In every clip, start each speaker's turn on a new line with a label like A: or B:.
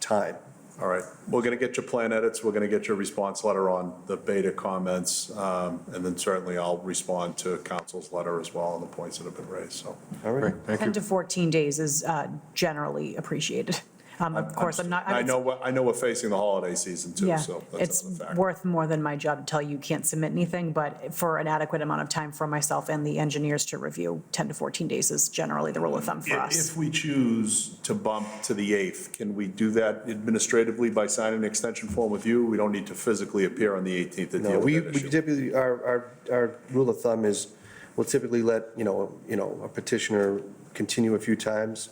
A: time.
B: All right, we're going to get your plan edits, we're going to get your response letter on the beta comments, um, and then certainly I'll respond to council's letter as well on the points that have been raised, so.
A: All right.
C: Great, thank
D: 10 to
C: you.
D: 14 days is uh, generally appreciated. Um, Of course, I'm not.
B: I
D: it's-
B: know, we're- I know we're facing the holiday season too,
D: Yeah,
B: so that's
D: it's
B: another factor.
D: worth more than my job to tell you you can't submit anything, but for an adequate amount of time for myself and the engineers to review, 10 to 14 days is generally the rule of thumb for
B: If-
D: us.
B: If we choose to bump to the 8th, can we do that administratively by signing an extension form with you? We don't need to physically appear on the 18th to
A: No,
B: deal
A: we
B: with that
A: we
B: issue.
A: typically, our, our, our rule of thumb is, we'll typically let, you know, you know, a petitioner continue a few times,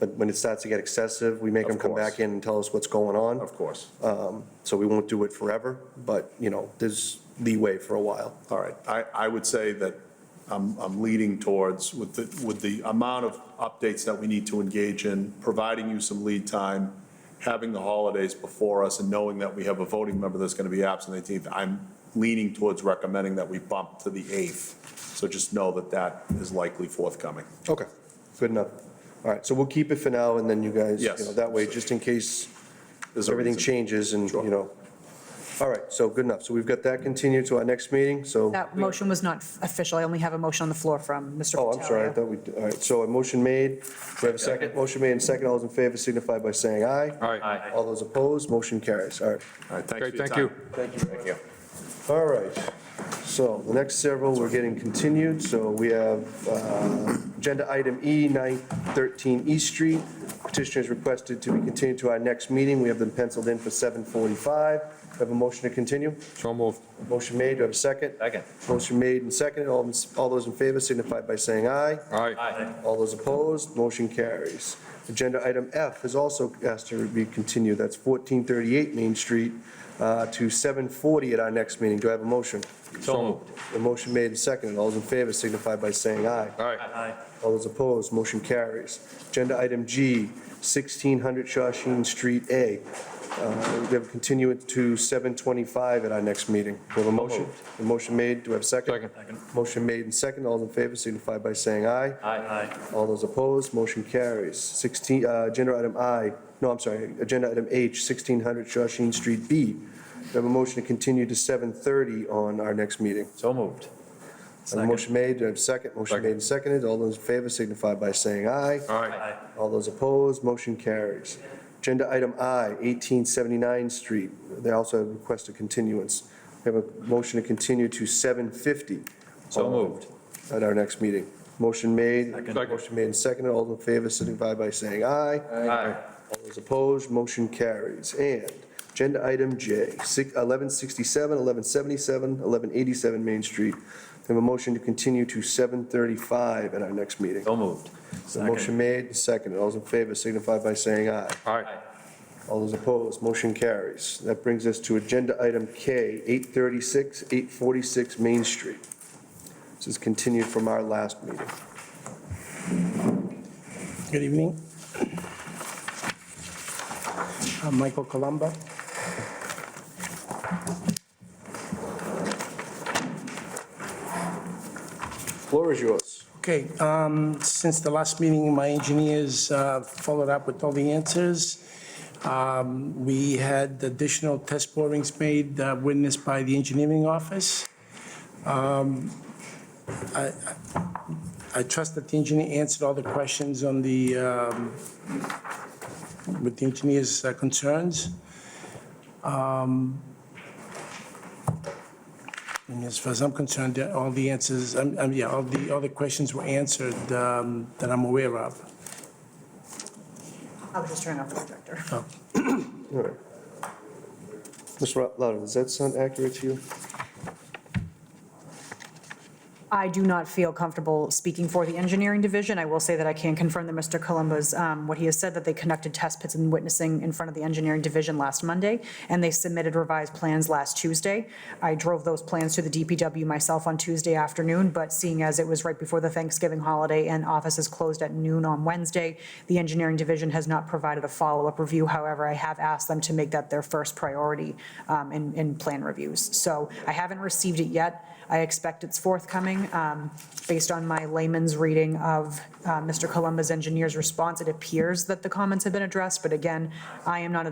A: but when it starts to get excessive, we make
B: Of
A: them come
B: course.
A: back in and tell us what's going on.
B: Of course.
A: So we won't do it forever, but, you know, there's leeway for a while.
B: All right, I, I would say that I'm, I'm leading towards with the, with the amount of updates that we need to engage in, providing you some lead time, having the holidays before us and knowing that we have a voting member that's going to be absent the 18th, I'm leaning towards recommending that we bump to the 8th. So just know that that is likely forthcoming.
A: Okay, good enough. All right, so we'll keep it for now, and then you guys, you
B: Yes.
A: know, that way, just in case
B: There's a
A: everything
B: reason.
A: changes and,
B: Sure.
A: you know. All right, so good enough. So we've got that continued to our next meeting, so.
D: That motion was not official. I only have a motion on the floor from Mr.
A: Oh, I'm sorry, I
D: Patalia.
A: thought we, all right, so a motion made, we have a second, motion made and second, all those in favor signify by saying aye.
C: All right,
A: All those opposed, motion carries, all right.
B: All right, thanks for
C: great,
B: your
C: thank
B: time.
C: you.
A: All right, so the next several, we're getting continued, so we have uh, agenda item E, 913 East Street. Petitioner is requested to be continued to our next meeting, we have them penciled in for 7:45. We Have a motion to continue?
C: So moved.
A: Motion made, do I have a second?
E: Second.
A: Motion made and seconded, all all those in favor signify by saying aye.
C: All right,
E: Aye.
A: All those opposed, motion carries. Agenda item F is also asked to be continued, that's 1438 Main Street uh, to 740 at our next meeting. Do I have a motion?
C: so moved.
A: The motion made and seconded, all those in favor signify by saying aye.
C: All right,
E: Aye.
A: All those opposed, motion carries. Agenda item G, 1600 Shawshene Street A. Uh, We have a continuance to 725 at our next meeting. Do we have a motion? The motion made, do we have a second?
C: Second.
A: Motion made and seconded, all those in favor signify by saying aye.
E: Aye.
A: All those opposed, motion carries. 16, uh, agenda item I, no, I'm sorry, agenda item H, 1600 Shawshene Street B. We have a motion to continue to 7:30 on our next meeting.
E: So moved.
A: I have a motion made, do I have a second? Motion
C: Second.
A: made and seconded. All those in favor signify by saying aye.
C: all right,
E: Aye.
A: All those opposed, motion carries. Agenda item I, 1879 Street, they also have requested continuance. We have a motion to continue to 7:50
E: So moved.
A: at our next meeting. Motion made,
E: Second.
C: Second.
A: motion made and seconded. All in favor signify by saying aye.
E: Aye.
A: All those opposed, motion carries. And agenda item J, six- 1167, 1177, 1187 Main Street. They have a motion to continue to 7:35 at our next meeting.
E: So movmoved.
A: The motion made, and seconded. All those in favor signify by saying aye.
C: all right.
A: All those opposed, motion carries. That brings us to agenda item K, 836, 846 Main Street. This is continued from our last meeting.
F: Good evening. I'm Michael Colombo.
A: Floor is yours.
F: Okay, um, since the last meeting, my engineers uh, followed up with all the answers. Um, We had additional test borings made, uh, witnessed by the engineering office. Um, I I- I trust that the engineer answered all the questions on the, um, with the engineer's uh, concerns. And As far as I'm concerned, yeah, all the answers, um, um, yeah, all the, all the questions were answered um, that I'm aware of.
D: I was just turning off the projector.
A: All right. Mr. Loudon, does that sound accurate to you?
D: I do not feel comfortable speaking for the engineering division. I will say that I can confirm that Mr. Columbo's, um, what he has said, that they conducted test pits and witnessing in front of the engineering division last Monday, and they submitted revised plans last Tuesday. I drove those plans to the DPW myself on Tuesday afternoon, but seeing as it was right before the Thanksgiving holiday and offices closed at noon on Wednesday, the engineering division has not provided a follow-up review. However, I have asked them to make that their first priority um, in, in plan reviews. So I haven't received it yet. I expect it's forthcoming. Um, Based on my layman's reading of uh, Mr. Columba's engineer's response, it appears that the comments have been addressed, but again, I am not